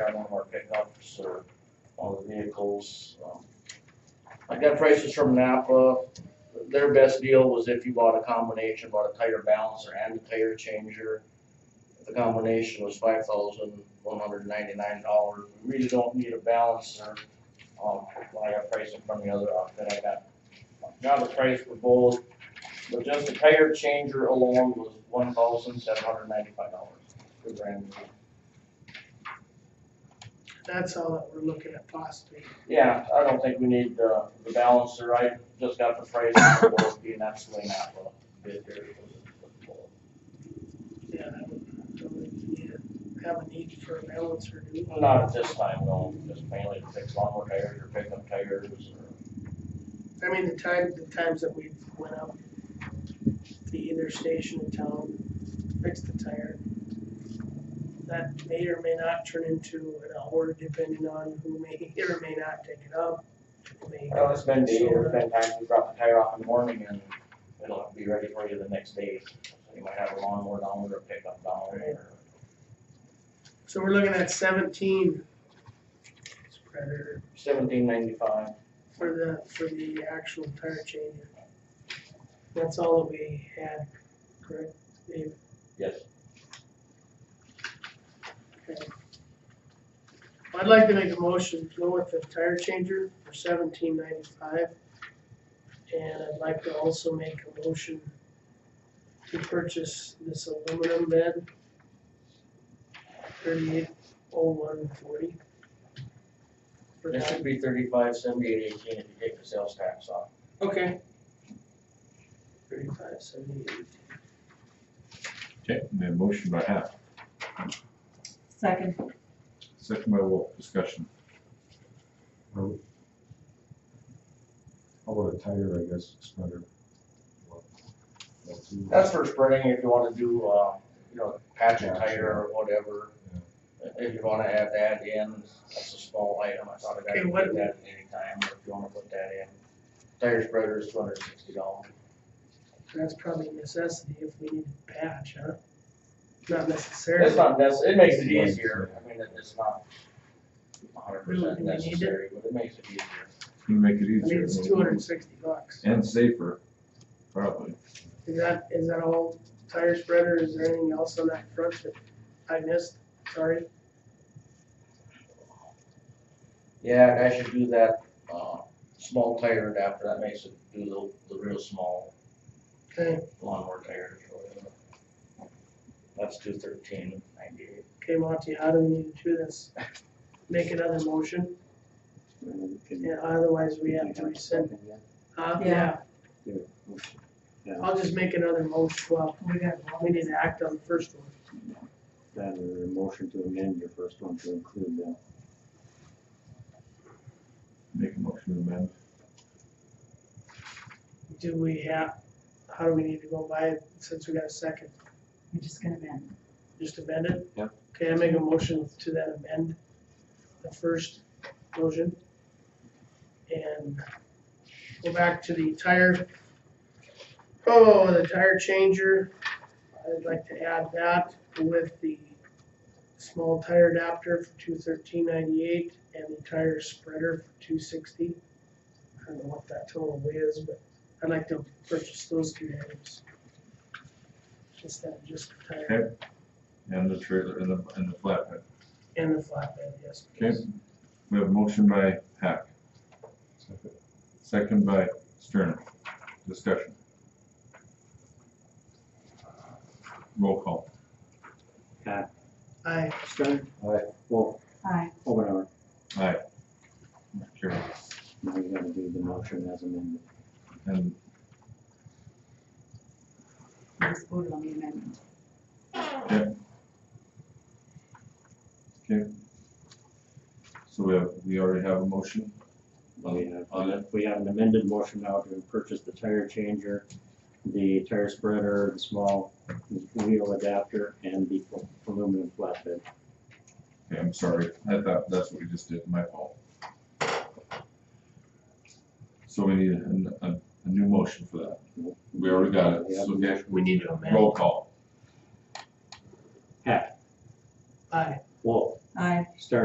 on one of our pickups or all the vehicles. um. I got prices from Napa. Their best deal was if you bought a combination, bought a tire balancer and a tire changer. The combination was five thousand one hundred ninety-nine dollars. We really don't need a balancer. Um, I got pricing from the other outfit. I got, got a price for both. But just the tire changer alone was one thousand seven hundred ninety-five dollars for brand new. That's all that we're looking at possibly. Yeah, I don't think we need the, the balancer, I just got the price on the board, being absolutely not a bid there. Yeah, I would, I would, yeah, have a need for a balancer, do. Not at this time, though, just mainly to fix lawnmower tires or pickup tires or, I mean, the time, the times that we went up to either station in town, fixed the tire. That may or may not turn into an order depending on who may, or may not take it up. It may- well, Oh, it's been days, or been times we drop the tire off in the morning and it'll be ready for you the next day. So You might have a lawnmower down there, or pickup down there, So we're looking at seventeen spreader seventeen ninety-five. for the, for the actual tire changer. That's all that we had, correct, Dave? Yes. Okay. I'd like to make a motion to go with the tire changer for seventeen ninety-five. And I'd like to also make a motion to purchase this aluminum bed. Thirty-eight oh one forty. For This that, should be thirty-five, seventy-eight, eighteen if you take the sales tax off. okay. Thirty-five seventy-eight. Okay, the motion by half, Second. second by Wolf, discussion. How about a tire, I guess, it's better. That's for sprinting, if you wanna do, uh, you know, patch a Yeah, tire or whatever. If you wanna add that in, that's a small item, I thought I Okay, could what- put that in anytime, or if you wanna put that in. Tire spreader is two hundred and sixty dollars. That's probably a necessity if we need to patch, huh? Not necessarily. It's not necess, it makes it easier, I mean, it- it's not hundred Really, percent do we need it? necessary, but it makes it easier. You make it I mean, easier. it's two hundred and sixty bucks. And safer, probably. Is that, is that all tire spreader? Is there anything else on that front that I missed? Sorry. Yeah, and I should do that, uh, small tire adapter, that makes it do the, the real small Okay, lawnmower tires or whatever. That's two thirteen ninety-eight. okay, Monty, how do we need to do this? Make another motion? Yeah, Yeah, otherwise we have to rescind. Huh? Yeah. I'll just make another motion. Well, We got we need to act on the first one. That or a motion to amend your first one to include the Make a motion to amend. Do we have, how do we need to go by it since we got a second? We're just gonna amend. Just amend it? Yep. Okay, I make a motion to that amend, the first motion. And go back to the tire, oh, the tire changer. I'd like to add that with the small tire adapter for two thirteen ninety-eight and the tire spreader for two sixty. I don't know what that total is, but I'd like to purchase those two items. Instead of just the tire. Okay. And the trailer and the, and the flatbed. And the flatbed, yes. Okay, we have a motion by Hack, second by Sterner. Discussion. Roll call. I, Stern. Aye. Wolf, Aye. Omenauer. Aye. Carry. Now you gotta do the motion as amended. And We just voted on the amendment. so we have, we already have a motion. We have- On it. We have an amended motion now to purchase the tire changer, the tire spreader, the small wheel adapter, and the aluminum flatbed. Okay, I'm sorry, I thought that's what we just did, my fault. So we need a, a, a new motion for that. We already got it, so okay, we need to amend. roll call. Hack, I. Wolf, Aye. Stern.